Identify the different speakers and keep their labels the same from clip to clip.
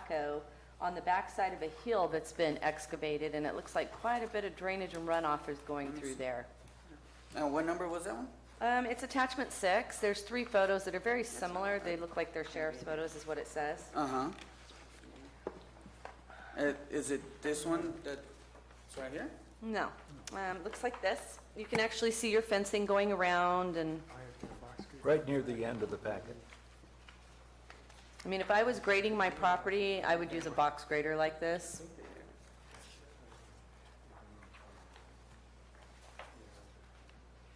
Speaker 1: backhoe on the backside of a hill that's been excavated, and it looks like quite a bit of drainage and runoff is going through there.
Speaker 2: Now, what number was that one?
Speaker 1: Um, It's attachment six. There's three photos that are very similar. They look like they're sheriff's photos, is what it says.
Speaker 2: Uh-huh. Uh, Is it this one that's right here?
Speaker 1: No. Um, Looks like this. You can actually see your fencing going around, and,
Speaker 3: right near the end of the packet.
Speaker 1: I mean, if I was grading my property, I would use a box grader like this.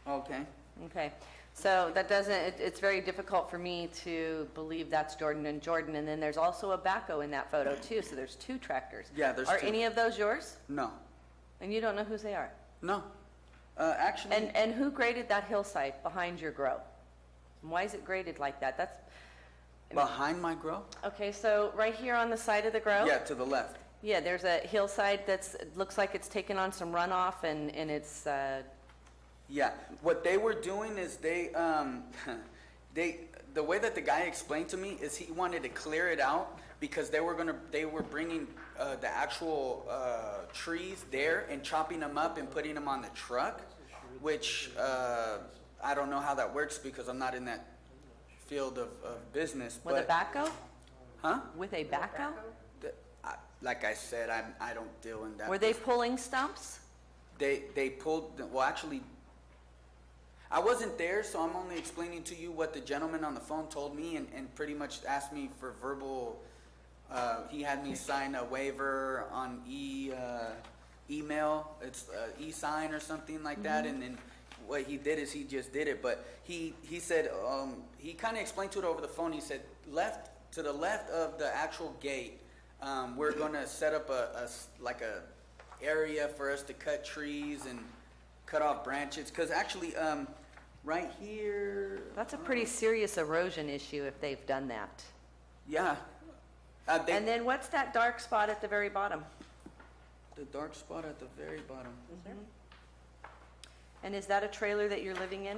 Speaker 2: Okay.
Speaker 1: Okay, so that doesn't, it, it's very difficult for me to believe that's Jordan and Jordan, and then there's also a backhoe in that photo too, so there's two tractors.
Speaker 2: Yeah, there's
Speaker 1: Are
Speaker 2: two.
Speaker 1: any of those yours?
Speaker 2: No,
Speaker 1: And you don't know whose they are?
Speaker 2: no. Uh, Actually.
Speaker 1: And, and who graded that hillside behind your grow? And why is it graded like that? That's,
Speaker 2: Behind my grill?
Speaker 1: okay, so right here on the side of the grow?
Speaker 2: Yeah, to the left.
Speaker 1: Yeah, there's a hillside that's, it looks like it's taken on some runoff and, and it's, uh,
Speaker 2: Yeah. What they were doing is they, um, they, the way that the guy explained to me is he wanted to clear it out because they were gonna, they were bringing uh, the actual uh, trees there and chopping them up and putting them on the truck, which uh, I don't know how that works because I'm not in that field of, of business.
Speaker 1: with a
Speaker 2: but-
Speaker 1: backhoe?
Speaker 2: Huh?
Speaker 1: With a backhoe?
Speaker 2: The- I- Like I said, I'm, I don't deal in that.
Speaker 1: Were they pulling stumps?
Speaker 2: They, they pulled, well, actually, I wasn't there, so I'm only explaining to you what the gentleman on the phone told me and, and pretty much asked me for verbal, uh, he had me sign a waiver on e, uh, email, it's, uh, e-sign or something like that, and then what he did is he just did it, but he, he said, um, he kinda explained to it over the phone, he said, left, to the left of the actual gate, um, we're gonna set up a, a s- like a area for us to cut trees and cut off branches, because actually, um, right here,
Speaker 1: That's a pretty serious erosion issue if they've done that.
Speaker 2: yeah. Uh, they,
Speaker 1: And then what's that dark spot at the very bottom?
Speaker 2: the dark spot at the very bottom.
Speaker 4: Mm-hmm,
Speaker 1: And is that a trailer that you're living in?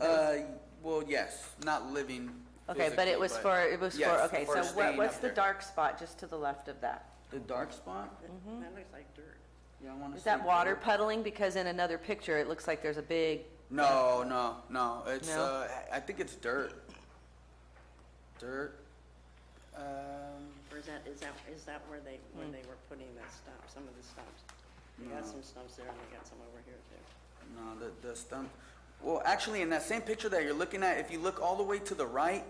Speaker 2: Uh, well, yes, not living.
Speaker 1: Okay, but it
Speaker 2: physically,
Speaker 1: was for, it was for,
Speaker 2: Yes,
Speaker 1: okay,
Speaker 2: for
Speaker 1: so
Speaker 2: staying
Speaker 1: what, what's
Speaker 2: up
Speaker 1: the
Speaker 2: there.
Speaker 1: dark spot just to the left of that?
Speaker 2: The dark spot?
Speaker 4: That looks like dirt.
Speaker 2: Yeah, I want to.
Speaker 1: Is that water puddling? Because in another picture, it looks like there's a big,
Speaker 2: No, no, no. It's
Speaker 1: No?
Speaker 2: uh, I I think it's dirt. Dirt. Um,
Speaker 4: Or is that, is that, is that where they, where they were putting that stump, some of the stumps? They got some stumps there and they got some over here too.
Speaker 2: No, the, the stump. Well, actually, in that same picture that you're looking at, if you look all the way to the right,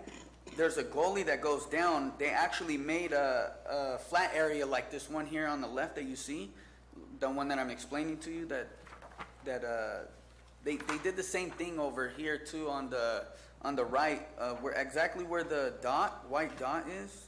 Speaker 2: there's a goalie that goes down. They actually made a, a flat area like this one here on the left that you see, the one that I'm explaining to you that, that, uh, they, they did the same thing over here too on the, on the right, uh, where, exactly where the dot, white dot is.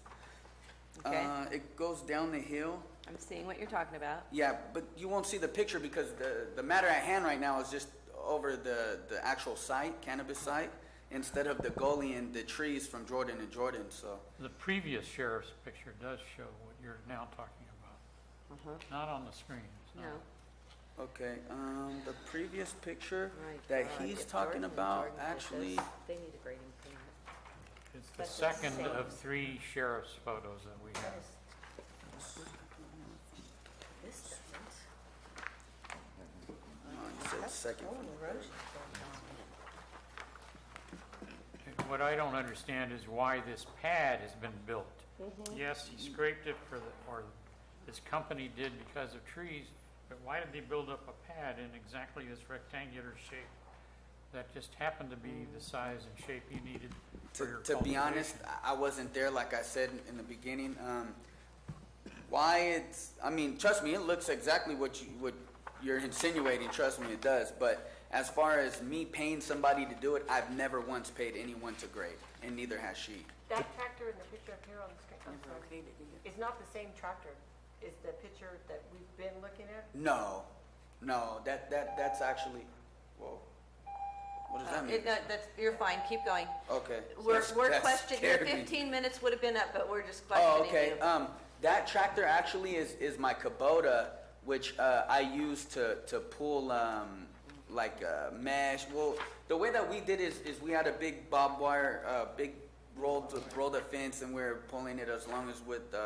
Speaker 1: okay?
Speaker 2: Uh, it goes down the hill.
Speaker 1: I'm seeing what you're talking about.
Speaker 2: Yeah, but you won't see the picture because the, the matter at hand right now is just over the, the actual site, cannabis site, instead of the goalie and the trees from Jordan and Jordan, so.
Speaker 5: The previous sheriff's picture does show what you're now talking about.
Speaker 1: Uh-huh. Oh
Speaker 5: Not on the screen. it's not-
Speaker 1: No.
Speaker 2: Okay, um, the previous picture that
Speaker 1: uh,
Speaker 2: he's talking about, actually,
Speaker 1: They need a grading permit.
Speaker 5: It's the second of three sheriff's photos that we have.
Speaker 1: This doesn't.
Speaker 2: no, he said second from the first.
Speaker 5: What I don't understand is why this pad has been built. Yes, he scraped it for the, or this company did because of trees, but why did they build up a pad in exactly this rectangular shape that just happened to be the size and shape you needed for your
Speaker 2: To, to be honest,
Speaker 5: cultivation?
Speaker 2: I I wasn't there, like I said in- in the beginning, um, why it's, I mean, trust me, it looks exactly what you, what you're insinuating, trust me, it does, but as far as me paying somebody to do it, I've never once paid anyone to grade, and neither has she.
Speaker 6: That tractor in the picture up here on the screen, I'm sorry, is not the same tractor Is the picture that we've been looking at.
Speaker 2: No, no, that, that, that's actually, whoa, what does that
Speaker 1: Uh, It,
Speaker 2: mean?
Speaker 1: no, that's, you're fine, keep going.
Speaker 2: Okay.
Speaker 1: We're,
Speaker 2: That's-
Speaker 1: we're
Speaker 2: that
Speaker 1: questioning, your
Speaker 2: scared me.
Speaker 1: 15 minutes would have been up, but we're just questioning
Speaker 2: Oh,
Speaker 1: you.
Speaker 2: okay. Um, that tractor actually is, is my Kubota, which uh, I use to, to pull um, like uh, mesh. Well, the way that we did is, is we had a big barbed wire, uh, big rolled rolled a fence, and we were pulling it as long as with. Uh,